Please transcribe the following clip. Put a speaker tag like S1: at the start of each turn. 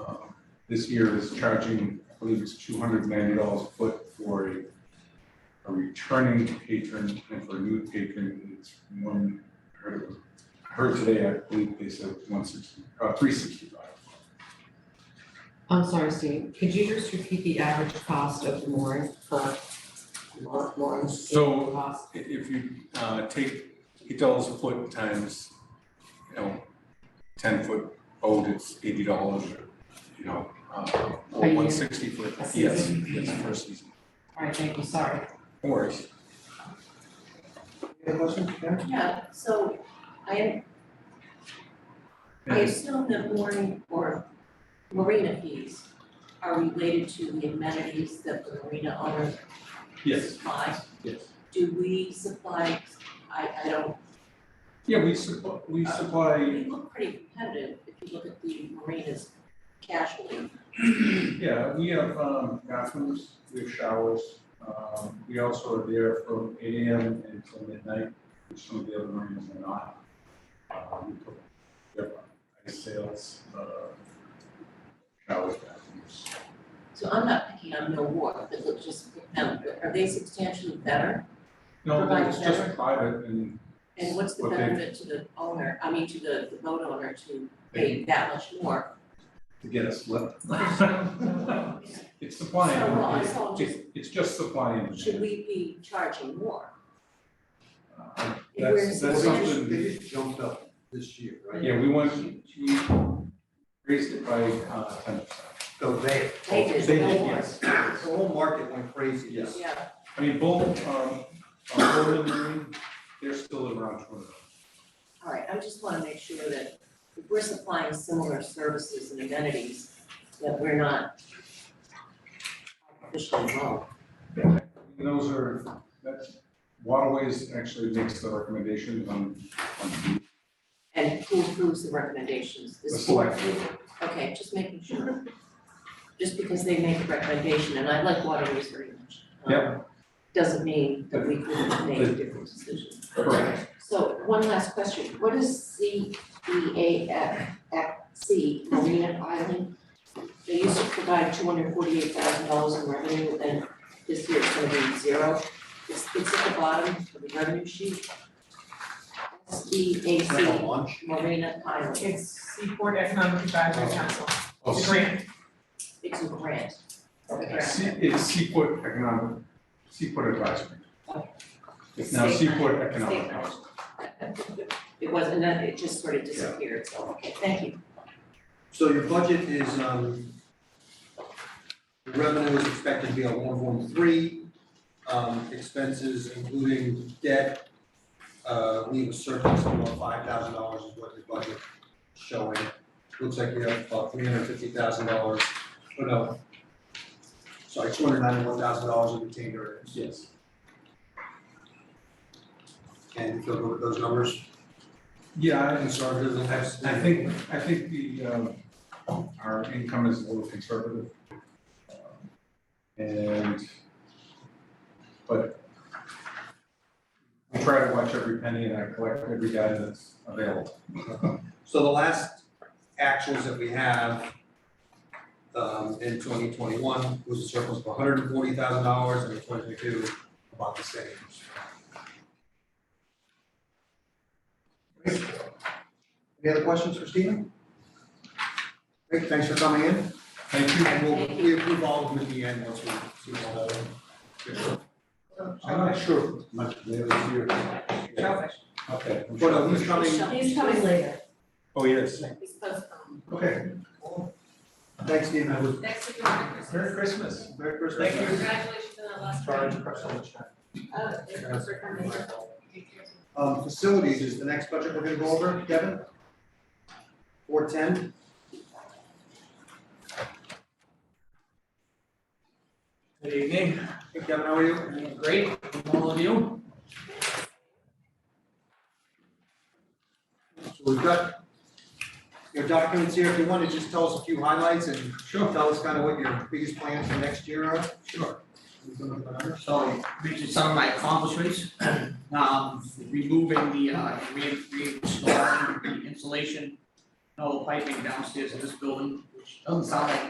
S1: Uh, this year is charging, I believe it's two hundred and ninety dollars a foot for a a returning patron and for a new patron, it's one, I heard it was, I heard today, I believe they said one sixty, uh, three sixty-five.
S2: I'm sorry, Steve, could you just repeat the average cost of the mooring per moor- mooring?
S1: So-
S2: Cost,
S1: i- if you uh take eight dollars a foot times, you know, ten foot boat, it's eighty dollars or, you know, uh
S2: A
S1: or
S2: year.
S1: one sixty foot,
S2: A
S1: yes,
S2: season.
S1: yes, for a season,
S2: all right, thank you, sorry.
S1: no worries.
S3: Any questions, Karen?
S4: Yeah, so I, I assume that mooring or marina fees are related to the amenities that the marina owners
S1: Yes,
S4: supply.
S1: yes.
S4: Do we supply, I, I don't,
S1: Yeah, we supply, we supply,
S4: we look pretty competitive if you look at the marinas casually.
S1: yeah, we have um bathrooms, we have showers. Um we also are there from eight AM until midnight, which some of the other marinas are not. Uh we put, we have ice sails, uh showers, bathrooms.
S4: So I'm not picking on Mill Wharf, but let's just pick them, but are they substantially better?
S1: No,
S4: Provide
S1: it's just
S4: better.
S1: private and
S4: And what's the
S1: Okay.
S4: benefit to the owner, I mean, to the, the boat owner to
S1: they
S4: pay that much more?
S1: to get us lit. It's supply
S4: So, well, I
S1: and
S4: saw
S1: it's it's it's just supply and demand.
S4: Should we be charging more?
S1: Uh,
S4: If we're
S1: That's that's
S4: supporting-
S1: something.
S3: They just jumped up this year, right?
S1: Yeah, we want, we raised it by uh ten percent.
S3: So they.
S4: They did.
S3: They
S4: They
S3: did,
S4: did.
S3: yes. The whole market went crazy.
S1: Yes.
S4: Yeah,
S1: I mean, both um uh Golden Marine, they're still at around two hundred.
S4: all right, I just wanna make sure that if we're supplying similar services and amenities, that we're not artificially low.
S1: And those are, that's waterways actually makes the recommendation on on
S4: And who approves the recommendations?
S1: the
S4: This board.
S1: select.
S4: Okay, just making sure. Just because they make a recommendation, and I like waterways very much. um, Doesn't mean that we couldn't make a different decision.
S1: Correct.
S4: So one last question, what is C E A F F C Marina Island? They used to provide two hundred forty-eight thousand dollars in revenue and this year it's gonna be zero. It's, it's at the bottom of the revenue sheet. S E A
S3: It's Like a
S4: C
S3: launch.
S4: Marina Island,
S5: It's Seaport Economic Advisory Council,
S3: Oh,
S5: it's a grant.
S4: it's a grant.
S1: Se- It's Seaport Economic, Seaport Advisory. It's now
S4: State line.
S1: Seaport Economic
S4: State line.
S1: Council.
S4: It wasn't, that- it just sort of disappeared, so, okay, thank you.
S3: So your budget is, um, your revenue is expected to be at one one three. Um, expenses including debt, uh, leave a surplus of about five thousand dollars is what your budget is showing. Looks like you have about three hundred fifty thousand dollars, oh no. Sorry, two hundred ninety-one thousand dollars in retained earnings.
S1: Yes.
S3: And you feel good with those numbers?
S1: Yeah, I-
S3: Conservative and that's.
S1: I think, I think the, um, our income is a little conservative. Um, And, but we try to watch every penny and I collect every dime that's available.
S3: So the last actuals that we have um in twenty twenty-one was a surplus of hundred and forty thousand dollars and in twenty twenty-two, about the same. Great. Any other questions for Stephen? Great, thanks for coming in,
S1: Thank you.
S3: and we'll we approve all of them at the end once we see all that.
S1: I'm not sure if much there is here. Okay. I'm
S3: But uh,
S1: sure.
S3: who's coming,
S2: He's coming later.
S1: Oh, yes.
S4: It's postponed.
S3: okay. Thanks, Stephen, I was
S6: Next week, Merry
S1: Merry
S6: Christmas.
S1: Christmas.
S3: very first.
S1: Thank you.
S6: Congratulations on the last.
S3: Sorry,
S6: round.
S3: press on the chat.
S6: Uh, thank you for coming. Take care.
S3: Um, facilities is the next budget we're gonna go over, Kevin? Four ten,
S7: Good evening,
S3: hey Kevin, how are you?
S7: I'm great, and all of you.
S3: So we've got your documents here, if you wanna just tell us a few highlights and
S7: Sure.
S3: tell us kinda what your biggest plans for next year are.
S7: Sure.
S3: We can look at the numbers.
S7: So, these are some of my accomplishments, um, removing the, uh, re- reinstalling the insulation, and all the piping downstairs in this building, which doesn't sound like